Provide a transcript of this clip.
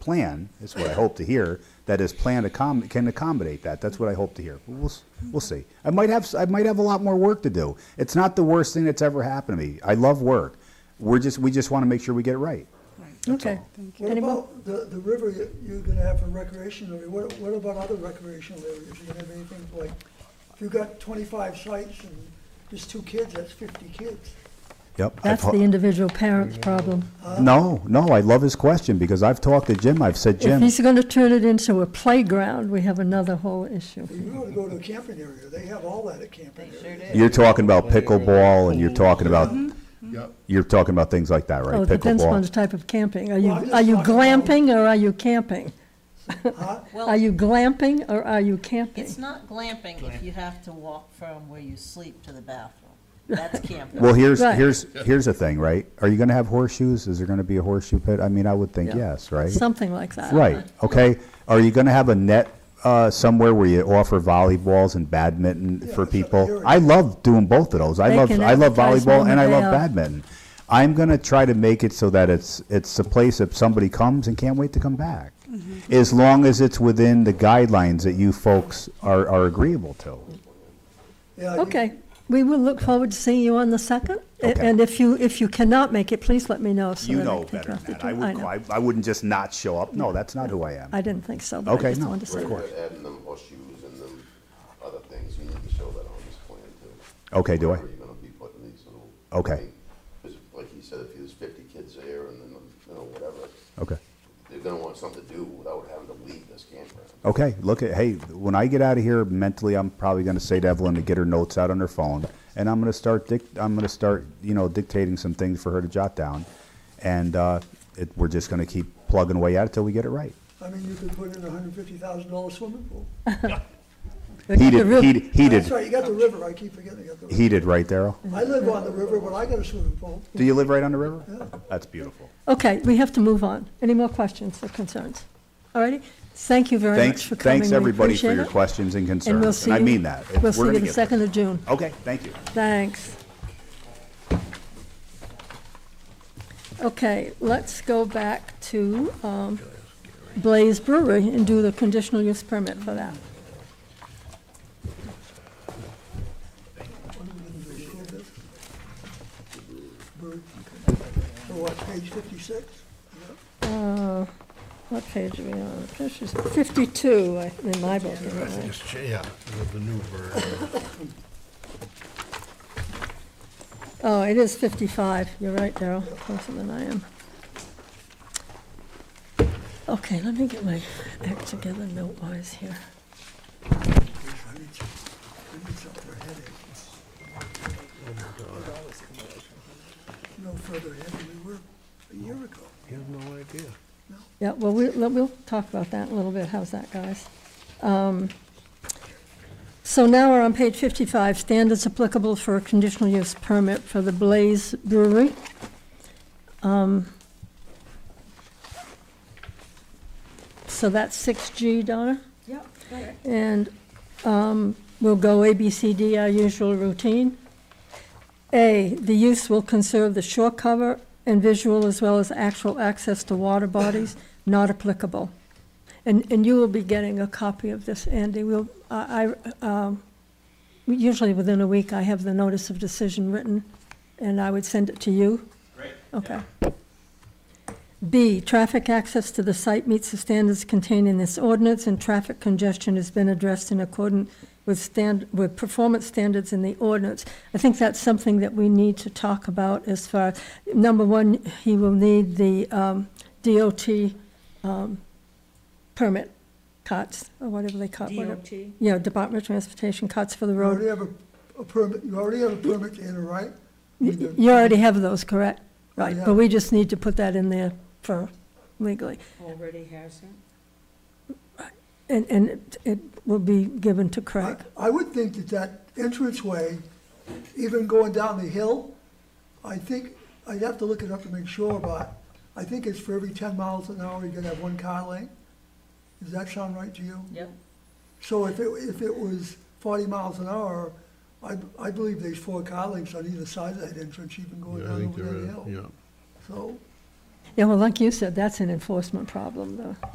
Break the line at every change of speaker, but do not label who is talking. plan, is what I hope to hear, that his plan accom- can accommodate that. That's what I hope to hear. We'll, s- we'll see. I might have, s- I might have a lot more work to do. It's not the worst thing that's ever happened to me. I love work. We're just, we just want to make sure we get it right.
Okay.
What
Any more?
about the, the river you- you're gonna have for recreational area? What, what about other recreational areas? You gonna have anything like, if you got twenty-five sites and just two kids, that's fifty kids.
Yep. I've Uh,
That's
ho-
the individual parent's problem.
No, no, I love his question because I've talked to Jim. I've said,
If
Jim,
he's going to turn it into a playground, we have another whole issue.
If you were to go to a camping area, they have all that at camping area.
you're talking about pickleball and you're talking about, Mm-hmm.
Yep.
you're talking about things like that, right?
Oh, it depends on the
Pickleball.
type of camping. Are
Well,
you,
I'm just
are you
talking about-
glamping or are you camping?
Huh?
Are
Well,
you glamping or are you camping?
it's not glamping if you have to walk from where you sleep to the bathroom. That's camping.
Well, here's,
Right.
here's, here's the thing, right? Are you going to have horseshoes? Is there going to be a horseshoe pit? I mean, I would think yes, right?
Something like that.
Right, okay. Are you gonna have a net, uh, somewhere where you offer volleyballs and badminton for
that's what I
people?
heard.
I love doing both of those. I
They
love,
can
I love
advertise
volleyball
one
and I
day
love
out.
badminton. I'm gonna try to make it so that it's, it's a place that somebody comes and can't wait to come back.
Mm-hmm.
As long as it's within the guidelines that you folks are, are agreeable to.
Yeah, you-
Okay, we will look forward to seeing you on the second. A-
Okay.
And if you, if you cannot make it, please let me know so that I can talk to you. I know.
I wouldn't just not show up. No, that's not who I am.
I didn't think so, but
Okay,
I just
no,
wanted to say
of
that.
course.
Adding them horseshoes and them other things, you need to show that on this plan too.
Okay, do I?
Wherever you're gonna be putting these little.
Okay.
thing- 'cause Like you said, if there's fifty kids there and then, you know, whatever,
Okay.
they're gonna want something to do without having to leave this campground.
Okay, look at, hey, when I get out of here mentally, I'm probably gonna say to Evelyn to get her notes out on her phone. And I'm gonna start dic, I'm gonna start, you know, dictating some things for her to jot down. And, uh, it, we're just gonna keep plugging away at it till we get it right.
I mean, you could put in a hundred fifty thousand dollar swimming pool.
But the
Heated,
real-
heated,
That's
heated,
right, you got the river, I keep forgetting you got the river.
heated, right there. Earl?
I live on the river, but I got a swimming pool.
Do you live right on the river? That's beautiful.
Okay, we have to move on. Any more questions or concerns? All righty, thank you very
Thanks,
much for coming.
thanks
We
everybody for
appreciate
your
it.
questions and
And we'll
concerns,
see
and
you.
I mean that. It-
We'll
we're
see you
gonna
the
get there.
2nd of June.
Okay, thank you.
Thanks. Okay, let's go back to um, Blaze Brewery and do the conditional use permit for that.
So what, page fifty-six?
Uh, What page are we on? This is 52, I- in my book, anyway.
It's ch- Yeah, the- the new version.
Oh, it is 55, you're right, Darrell, closer than I am. Okay, let me get my act together note-wise here.
I need some, I need some for headaches. No further ahead than we were a year ago.
You have no idea.
Yeah, well, we- we'll, we'll talk about that in a little bit, how's that, guys? Um, So now we're on page 55, standards applicable for a conditional use permit for the Blaze Brewery. Um, So that's 6G, Donna?
Yep, correct.
And um, we'll go A, B, C, D, our usual routine. A, the use will conserve the shore cover and visual as well as actual access to water bodies, not applicable. And, and you will be getting a copy of this, Andy. We'll, I, I, um, usually within a week, I have the notice of decision written, and I would send it to you.
Great.
Okay. B, traffic access to the site meets the standards contained in this ordinance, and traffic congestion has been addressed in accordance with stand, with performance standards in the ordinance. I think that's something that we need to talk about as far, number one, he will need the um, DOT um, permit, COTS, or whatever they call it.
DOT.
Yeah, Department of Transportation, COTS for the
You already
road.
have a, a permit, you already have a permit to enter, right?
Y- You already have those, correct? Right,
Yeah.
but we just need to put that in there for legally.
Already has it.
And, and it- it will be given to
I
Craig.
I would think that that entranceway, even going down the hill, I think, I'd have to look it up to make sure, but I think it's for every ten miles an hour, you're gonna have one car lane. Does that sound right to you?
Yep.
So if it, if it was forty miles an hour, I, I believe there's four car lengths on either side of that entrance, even going
Yeah, I
down
think
over
there
that
is,
hill.
yeah.
So,
Yeah, well, like you said, that's an enforcement problem, though.